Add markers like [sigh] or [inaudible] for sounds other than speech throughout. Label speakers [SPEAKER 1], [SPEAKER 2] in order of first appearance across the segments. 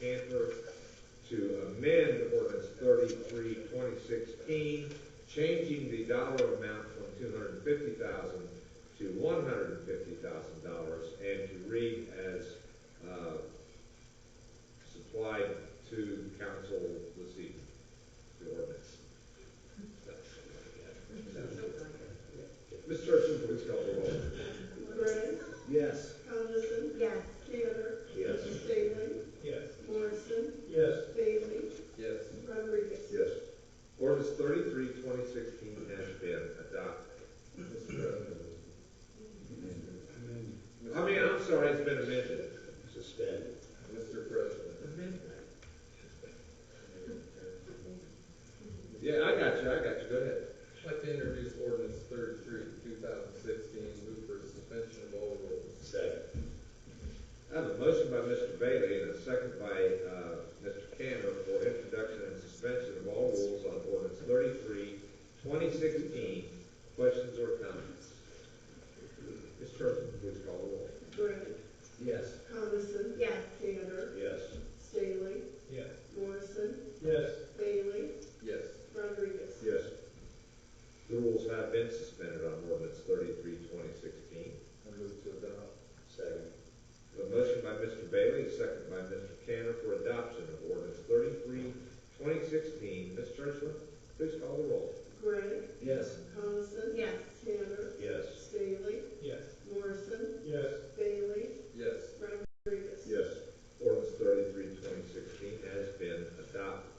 [SPEAKER 1] Cantor to amend ordinance thirty-three, twenty sixteen, changing the dollar amount from two hundred and fifty thousand to one hundred and fifty thousand dollars, and to read as, uh, supplied to council this evening, the ordinance. Ms. Churchman, please call the roll.
[SPEAKER 2] Gray,
[SPEAKER 3] Yes.
[SPEAKER 2] Coniston,
[SPEAKER 4] yes,
[SPEAKER 2] Tanner,
[SPEAKER 3] Yes.
[SPEAKER 2] Staley,
[SPEAKER 3] Yes.
[SPEAKER 2] Morrison,
[SPEAKER 3] Yes.
[SPEAKER 2] Bailey,
[SPEAKER 3] Yes.
[SPEAKER 2] Rodriguez.
[SPEAKER 1] Yes. Ordinance 33-2016 has been adopted. I mean, I'm sorry, it's been amended.
[SPEAKER 3] Suspended. Mr. President.
[SPEAKER 1] Yeah, I got you, I got you, go ahead.
[SPEAKER 5] I'd like to introduce ordinance thirty-three, two thousand sixteen, move for suspension of all rules.
[SPEAKER 3] Second.
[SPEAKER 1] I have a motion by Mr. Bailey and a second by, uh, Mr. Cantor for introduction and suspension of all rules on ordinance 33-2016. Questions or comments? Ms. Churchman, please call the roll.
[SPEAKER 2] Gray,
[SPEAKER 3] Yes.
[SPEAKER 2] Coniston,
[SPEAKER 4] yes,
[SPEAKER 2] Tanner,
[SPEAKER 3] Yes.
[SPEAKER 2] Staley,
[SPEAKER 3] Yes.
[SPEAKER 2] Morrison,
[SPEAKER 3] Yes.
[SPEAKER 2] Bailey,
[SPEAKER 5] Yes.
[SPEAKER 2] Rodriguez.
[SPEAKER 1] Yes. The rules have been suspended on ordinance 33-2016.
[SPEAKER 5] I move to adopt.
[SPEAKER 3] Second.
[SPEAKER 1] A motion by Mr. Bailey, a second by Mr. Cantor for adoption of ordinance 33-2016. Ms. Churchman, please call the roll.
[SPEAKER 2] Gray,
[SPEAKER 3] Yes.
[SPEAKER 2] Coniston,
[SPEAKER 4] yes,
[SPEAKER 2] Tanner,
[SPEAKER 3] Yes.
[SPEAKER 2] Staley,
[SPEAKER 3] Yes.
[SPEAKER 2] Morrison,
[SPEAKER 3] Yes.
[SPEAKER 2] Bailey,
[SPEAKER 5] Yes.
[SPEAKER 2] Rodriguez.
[SPEAKER 3] Yes.
[SPEAKER 1] Ordinance 33-2016 has been adopted.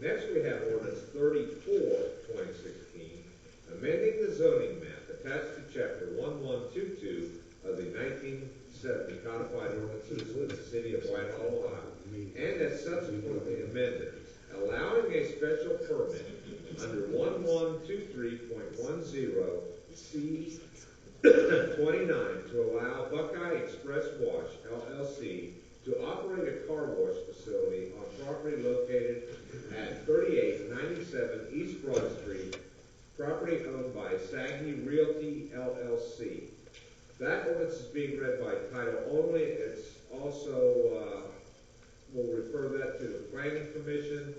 [SPEAKER 1] Next, we have ordinance 34-2016, amending the zoning map attached to chapter one-one-two-two of the nineteen seventy codified ordinances of the city of Whitehall, Ohio,
[SPEAKER 3] uh,
[SPEAKER 1] and as subsequently amended, allowing a special permit under one-one-two-three-point-one-zero C twenty-nine to allow Buckeye Express Wash LLC to operate a car wash facility on property located at thirty-eight ninety-seven East Broad Street, property owned by Saggy Realty LLC. That ordinance is being read by title only, it's also, uh, we'll refer that to the planning commission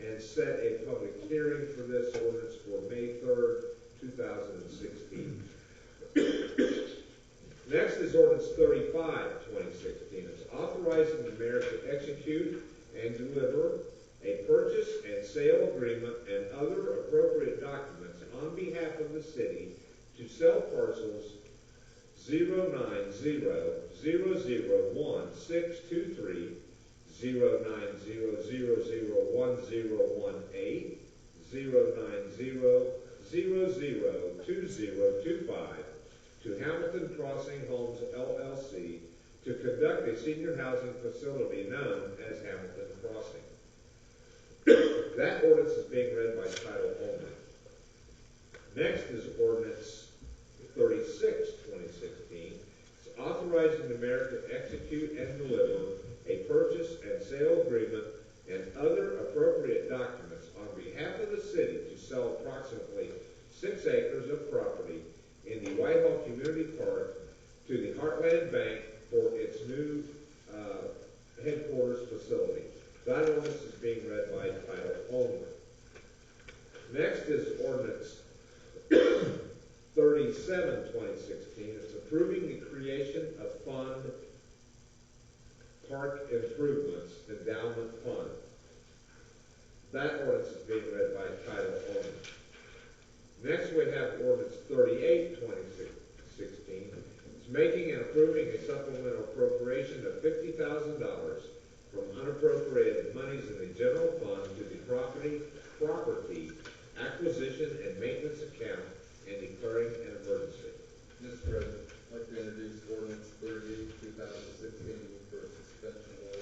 [SPEAKER 1] and set a public hearing for this ordinance for May third, two thousand and sixteen. Next is ordinance 35, 2016. It's authorizing the mayor to execute and deliver a purchase and sale agreement and other appropriate documents on behalf of the city to sell parcels 090001623, 090000118, 090002025, to Hamilton Crossing Homes LLC to conduct a senior housing facility known as Hamilton Crossing. That ordinance is being read by title only. Next is ordinance 36, 2016. It's authorizing the mayor to execute and deliver a purchase and sale agreement and other appropriate documents on behalf of the city to sell approximately six acres of property in the Whitehall Community Park to the Heartland Bank for its new uh, headquarters facility. That ordinance is being read by title only. Next is ordinance [coughs] 37, 2016. It's approving the creation of fund park improvements endowment fund. That ordinance is being read by title only. Next, we have ordinance 38, 2016. It's making and approving a supplemental appropriation of $50,000